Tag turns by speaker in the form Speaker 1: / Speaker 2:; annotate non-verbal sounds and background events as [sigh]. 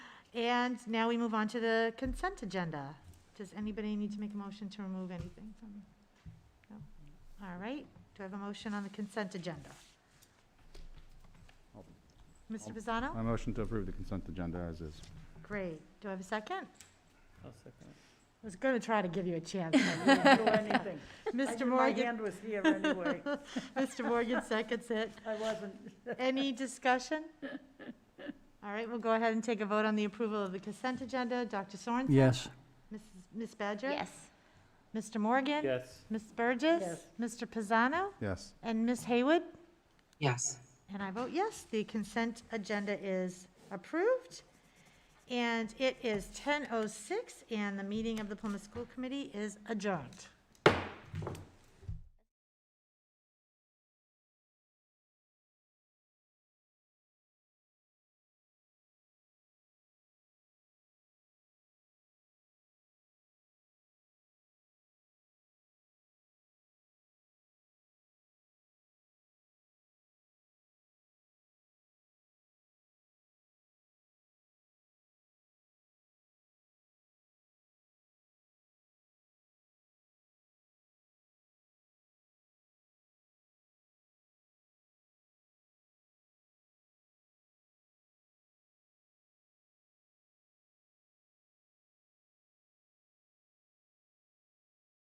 Speaker 1: And now we move on to the consent agenda. Does anybody need to make a motion to remove anything from? no? All right, do I have a motion on the consent agenda?
Speaker 2: I'll-
Speaker 1: Mr.
Speaker 2: I'll-
Speaker 1: Pizzano?
Speaker 2: My motion to approve the consent agenda as is.
Speaker 1: Great. Do I have a second?
Speaker 3: I'll second it.
Speaker 1: I was going to try to give you a [laughs] chance.
Speaker 4: I didn't
Speaker 1: [laughs]
Speaker 4: do anything. I
Speaker 1: Mr.
Speaker 4: did- My
Speaker 1: Morgan,
Speaker 4: hand was here
Speaker 1: [laughs]
Speaker 4: anyway.
Speaker 1: Mr. Morgan seconds it.
Speaker 4: I wasn't,
Speaker 1: Any discussion? All right, we'll go ahead and take a vote on the approval of the consent agenda. Dr. Sorensen?
Speaker 5: Yes.
Speaker 1: Mrs. Ms. Badger?
Speaker 6: Yes.
Speaker 1: Mr. Morgan?
Speaker 3: Yes.
Speaker 1: Ms. Burgess?
Speaker 4: Yes.
Speaker 1: Mr. Pizzano?
Speaker 2: Yes.
Speaker 1: And Ms. Haywood?
Speaker 7: yes.
Speaker 1: And I vote yes, the consent agenda is approved. And it is 10:06, and the meeting of the Plymouth School Committee is adjourned.